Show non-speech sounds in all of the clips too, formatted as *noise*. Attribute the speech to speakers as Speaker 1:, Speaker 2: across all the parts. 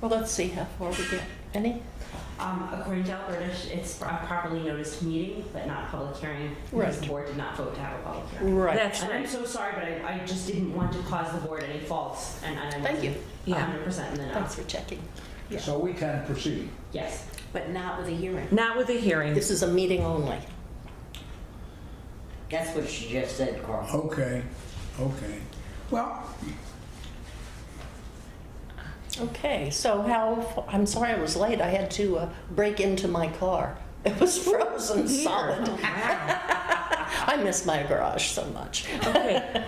Speaker 1: Well, let's see how far we get. Any?
Speaker 2: Um, according to Alberta, sh- it's a properly noticed meeting, but not public hearing. Because the
Speaker 1: Right.
Speaker 2: board did not vote to have a public hearing.
Speaker 1: Right.
Speaker 3: That's
Speaker 2: And I'm
Speaker 3: right.
Speaker 2: so sorry, but I, I just didn't want to cause the board any faults, and and I
Speaker 1: Thank you.
Speaker 2: wasn't
Speaker 3: Yeah.
Speaker 2: hundred percent in the know.
Speaker 1: Thanks for checking. Yeah.
Speaker 4: So we can proceed.
Speaker 2: Yes.
Speaker 5: But not with a hearing.
Speaker 3: Not with a hearing.
Speaker 1: This is a meeting only.
Speaker 5: That's what she just said, Carl.
Speaker 4: Okay, okay. Well,
Speaker 1: Okay, so how, f- I'm sorry I was late. I had to uh, break into my car. *laughs* It was frozen
Speaker 3: *laughs*
Speaker 1: solid. I miss my garage so much.
Speaker 3: Okay.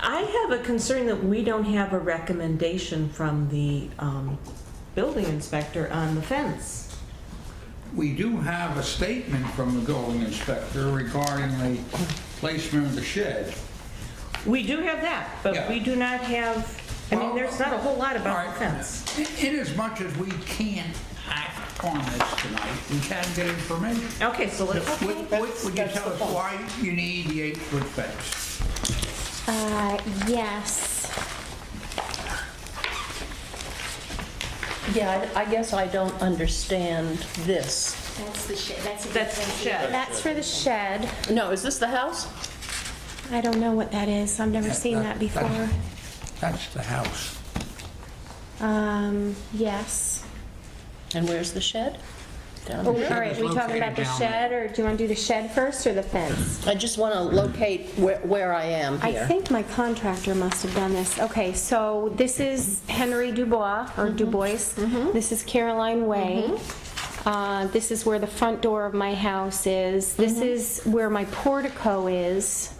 Speaker 3: I have a concern that we don't have a recommendation from the um, building inspector on the fence.
Speaker 4: we do have a statement from the building inspector regarding the placement of the shed.
Speaker 3: We do have that, but
Speaker 4: Yeah.
Speaker 3: we do not have, I mean,
Speaker 4: Well,
Speaker 3: there's not a whole lot about the
Speaker 4: All right.
Speaker 3: fence.
Speaker 4: In as much as we can't act on this tonight, we can get information.
Speaker 3: Okay, so let's,
Speaker 4: Would, would- would you
Speaker 1: That's-
Speaker 4: tell
Speaker 1: that's
Speaker 4: us
Speaker 1: the point.
Speaker 4: why you need the eight-foot fence?
Speaker 6: Uh, yes.
Speaker 1: Yeah, I I guess I don't understand this.
Speaker 5: That's the shit, that's a
Speaker 3: that's the shed.
Speaker 6: That's for the shed.
Speaker 1: No, is this the house?
Speaker 6: I don't know what that is. I've never seen that before.
Speaker 4: That's the house.
Speaker 6: Um, yes. Oh,
Speaker 1: And where's the shed? Down
Speaker 6: All
Speaker 1: here.
Speaker 6: right, we talking about the shed, or do you want to do the shed first or the fence?
Speaker 1: I just want to locate where, where I am
Speaker 6: I
Speaker 1: here.
Speaker 6: think my contractor must have done this. Okay, so this is Henry Dubois, or Dubois. This is Caroline Way. Uh, this is where the front door of my house is. This is where my portico is.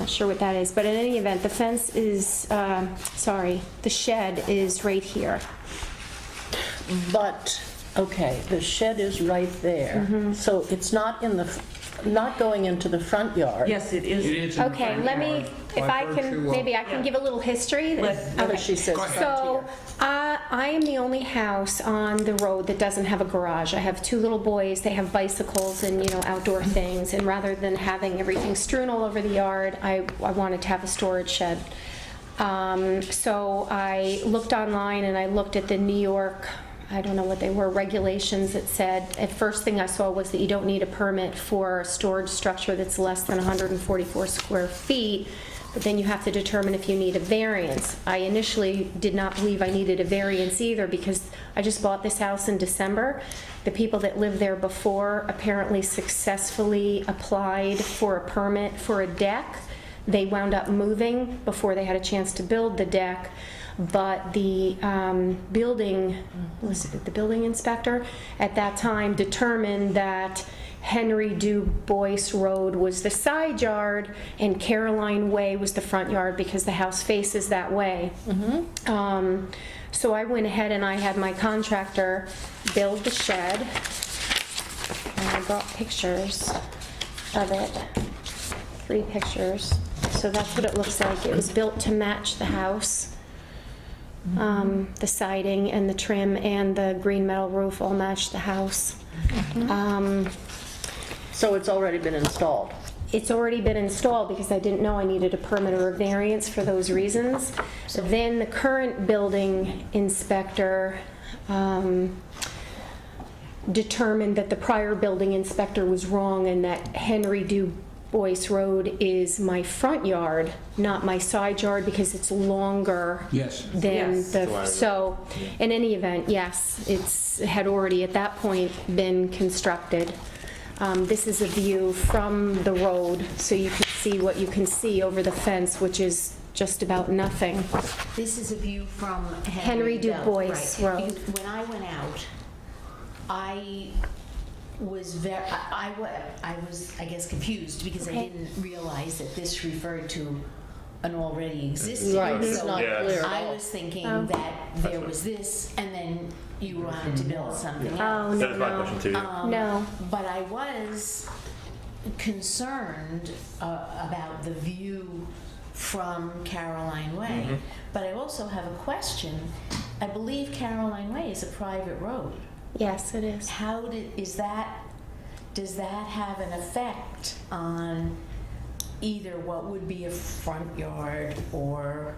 Speaker 6: Not sure what that is, but in any event, the fence is, um, sorry, the shed is right here.
Speaker 1: But, okay, the shed is right there. So it's not in the, f- not going into the front yard.
Speaker 3: Yes, it
Speaker 4: It
Speaker 3: is.
Speaker 4: is in the
Speaker 6: Okay,
Speaker 4: front
Speaker 6: let me,
Speaker 4: yard
Speaker 6: if
Speaker 4: by
Speaker 6: I
Speaker 4: virtue
Speaker 6: can,
Speaker 4: of-
Speaker 6: maybe I can give a little history.
Speaker 3: Let-
Speaker 1: Whether
Speaker 6: Okay.
Speaker 1: she says
Speaker 4: uh, Go ahead.
Speaker 6: So,
Speaker 1: frontier.
Speaker 6: uh, I am the only house on the road that doesn't have a garage. I have two little boys, they have bicycles and, you know, outdoor things, and rather than having everything strewn all over the yard, I, I wanted to have a storage shed. Um, so I looked online and I looked at the New York, I don't know what they were, regulations that said, at first thing I saw was that you don't need a permit for a storage structure that's less than 144 square feet, but then you have to determine if you need a variance. I initially did not believe I needed a variance either because I just bought this house in December. The people that lived there before apparently successfully applied for a permit for a deck. They wound up moving before they had a chance to build the deck. But the um, building, was it the building inspector at that time determined that Henry Dubois Road was the side yard and Caroline Way was the front yard because the house faces that way. Um, So I went ahead and I had my contractor build the shed. And I brought pictures of it, three pictures. So that's what it looks like. It was built to match the house. Um, The siding and the trim and the green metal roof all match the house. Um,
Speaker 1: So it's already been installed.
Speaker 6: it's already been installed because I didn't know I needed a permit or a variance for those reasons. Then the current building inspector um, determined that the prior building inspector was wrong and that Henry Dubois Road is my front yard, not my side yard, because it's longer
Speaker 4: Yes.
Speaker 6: than
Speaker 3: Yes.
Speaker 6: the, so, in any event, yes, it's, had already at that point been constructed. Um, This is a view from the road, so you can see what you can see over the fence, which is just about nothing.
Speaker 5: This is a view from
Speaker 6: Henry
Speaker 5: Henry Bell, right.
Speaker 6: Dubois Road.
Speaker 5: Because When I went out, I was very, I wa, I was, I guess, confused because I
Speaker 6: Okay.
Speaker 5: didn't realize that this referred to an already existing.
Speaker 1: Right, it's
Speaker 5: So
Speaker 1: not
Speaker 7: Yeah.
Speaker 1: clear at
Speaker 5: I
Speaker 1: all.
Speaker 5: was thinking
Speaker 6: Oh.
Speaker 5: that there was this, and then you wanted to build something
Speaker 6: Oh,
Speaker 5: else.
Speaker 7: That
Speaker 6: no, Oh,
Speaker 7: was my question
Speaker 6: no.
Speaker 7: too. yeah.
Speaker 5: Um,
Speaker 6: No.
Speaker 5: But I was concerned uh, about the view from Caroline Way. But I also have a question. I believe Caroline Way is a private road.
Speaker 6: Yes, it is.
Speaker 5: How did, is that, does that have an effect on either what would be a front yard or